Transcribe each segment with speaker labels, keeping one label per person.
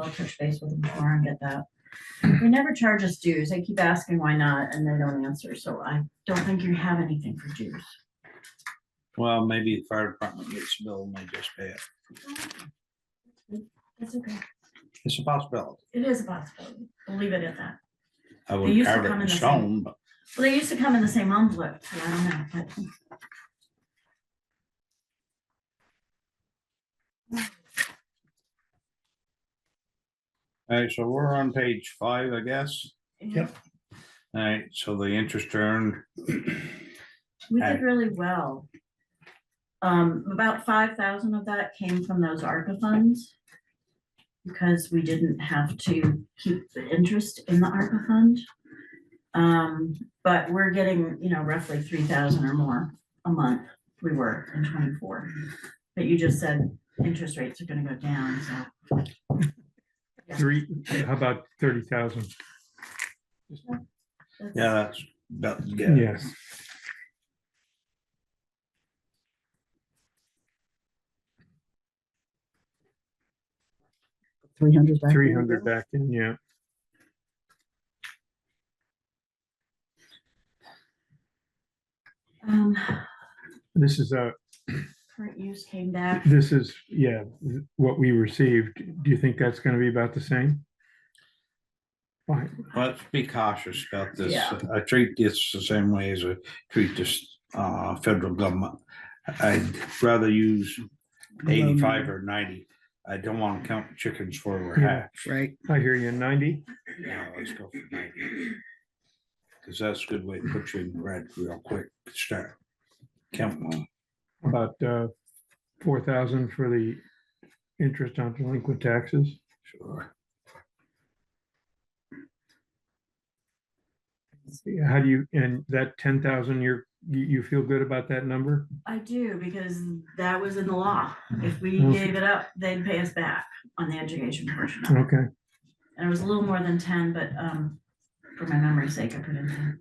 Speaker 1: I'll touch base with them tomorrow and get that. They never charge us dues. I keep asking why not, and they don't answer, so I don't think you have anything for dues.
Speaker 2: Well, maybe the fire department gets billed and they just pay it.
Speaker 1: It's okay.
Speaker 2: It's a possibility.
Speaker 1: It is a possibility. We'll leave it at that.
Speaker 2: I
Speaker 1: used
Speaker 2: would
Speaker 1: to
Speaker 2: carve it
Speaker 1: come in
Speaker 2: in
Speaker 1: the same-
Speaker 2: stone, but
Speaker 1: Well, they used to come in the same envelope, so I don't know, but.
Speaker 2: Alright, so we're on page five, I guess.
Speaker 1: Yep.
Speaker 2: Alright, so the interest earned,
Speaker 1: We
Speaker 2: Alright.
Speaker 1: did really well. Um, about five thousand of that came from those ARPA funds. Because we didn't have to keep the interest in the ARPA fund. Um, but we're getting, you know, roughly three thousand or more a month, we were in twenty-four. But you just said interest rates are gonna go down, so.
Speaker 3: Three, how about thirty thousand?
Speaker 1: that's-
Speaker 2: yeah, that's, that's good.
Speaker 3: Yes.
Speaker 4: Three hundred.
Speaker 3: Three hundred back in, yeah.
Speaker 1: Um,
Speaker 3: This is a,
Speaker 1: current use came back.
Speaker 3: this is, yeah, th- what we received. Do you think that's gonna be about the same? Fine,
Speaker 2: Let's be cautious about this.
Speaker 1: Yeah.
Speaker 2: I treat this the same way as I treat this, uh, federal government. I'd rather use eighty-five or ninety. I don't wanna count chickens for we're
Speaker 3: Yeah.
Speaker 2: hatched.
Speaker 4: Right,
Speaker 3: I hear you, ninety?
Speaker 2: Yeah, let's go for ninety. Cause that's a good way to put you in the red real quick, start. Count one.
Speaker 3: About uh, four thousand for the interest on delinquent taxes?
Speaker 2: Sure.
Speaker 3: How do you, and that ten thousand, you're, you, you feel good about that number?
Speaker 1: I do, because that was in the law. If we
Speaker 3: Okay.
Speaker 1: gave it up, they'd pay us back on the education portion. of it.
Speaker 3: Okay,
Speaker 1: And it was a little more than ten, but um, for my memory's sake, I put in ten.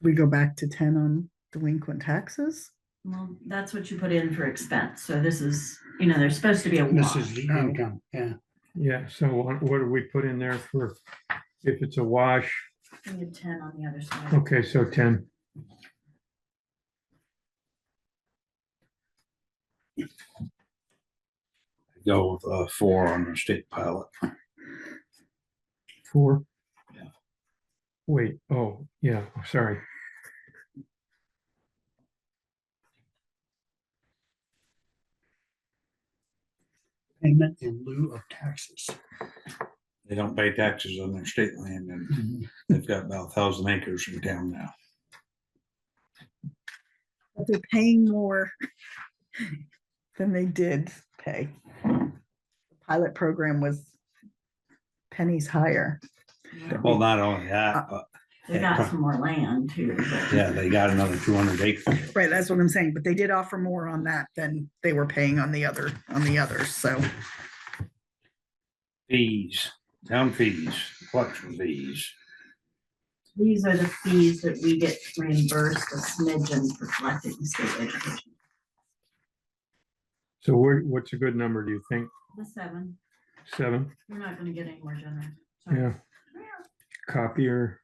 Speaker 4: we go back to ten on delinquent taxes?
Speaker 1: Well, that's what you put in for expense. So this is, you know, there's supposed to be a
Speaker 5: This
Speaker 1: wash.
Speaker 5: is the
Speaker 4: Oh.
Speaker 5: income, yeah.
Speaker 3: yeah, so what, what do we put in there for, if it's a wash,
Speaker 1: We had ten on the other side.
Speaker 3: okay, so ten.
Speaker 2: Go with uh, four on the state pilot.
Speaker 3: Four?
Speaker 2: Yeah.
Speaker 3: Wait, oh, yeah, sorry.
Speaker 5: Payment in lieu of taxes.
Speaker 2: They don't pay taxes on their state land and they've got about a thousand acres in town now.
Speaker 4: But They're paying more than they did pay. Pilot program was pennies higher.
Speaker 2: Well, not only that, but
Speaker 1: They got some more land too, but
Speaker 2: yeah, they got another two hundred acres.
Speaker 4: Right, that's what I'm saying, but they did offer more on that than they were paying on the other, on the others, so.
Speaker 2: Fees, town fees, collection fees.
Speaker 1: these are the fees that we get reimbursed a smidgen for collecting state education.
Speaker 3: So where, what's a good number, do you think?
Speaker 1: The seven,
Speaker 3: Seven?
Speaker 1: you're not gonna get any more generous. Sorry.
Speaker 3: Yeah. Copier,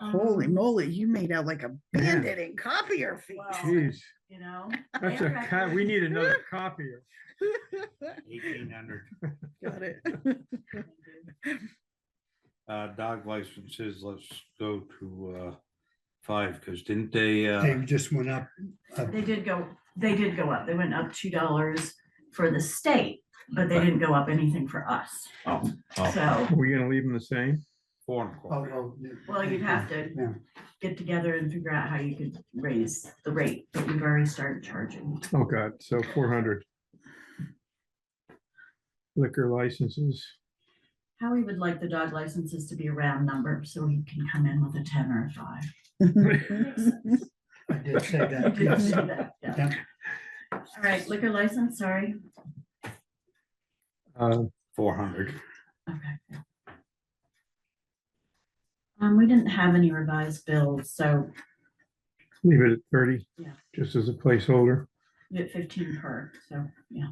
Speaker 1: Um,
Speaker 4: Holy moly, you made out like a
Speaker 3: Yeah.
Speaker 4: bandit in copier fee.
Speaker 1: Wow.
Speaker 3: jeez,
Speaker 1: You know?
Speaker 3: that's a, co- we need another copier.
Speaker 2: Eighteen hundred.
Speaker 4: Got it.
Speaker 2: Uh, dog licenses, let's go to uh, five, because didn't they,
Speaker 5: They
Speaker 2: uh,
Speaker 5: just went up. uh,
Speaker 1: They did go, they did go up. They went up two dollars for the state, but they didn't go up anything for us.
Speaker 2: oh, oh,
Speaker 1: So
Speaker 3: Are we gonna leave them the same?
Speaker 2: four and a
Speaker 5: oh,
Speaker 2: quarter.
Speaker 5: oh, yeah,
Speaker 1: Well, you'd have to.
Speaker 5: Yeah,
Speaker 1: get together and figure out how you could raise the rate, but we've already started charging.
Speaker 3: Oh, God, so four hundred. Liquor licenses,
Speaker 1: How we would like the dog licenses to be a round number, so he can come in with a ten or a five.
Speaker 5: I did say
Speaker 1: You
Speaker 5: that,
Speaker 1: did say
Speaker 5: yes.
Speaker 1: that, yeah.
Speaker 5: Yeah.
Speaker 1: All right, liquor license, sorry.
Speaker 3: uh,
Speaker 2: Four hundred.
Speaker 1: Okay. Um, we didn't have any revised bills, so
Speaker 3: leave it at thirty,
Speaker 1: Yeah.
Speaker 3: just as a placeholder.
Speaker 1: we get fifteen per, so, yeah.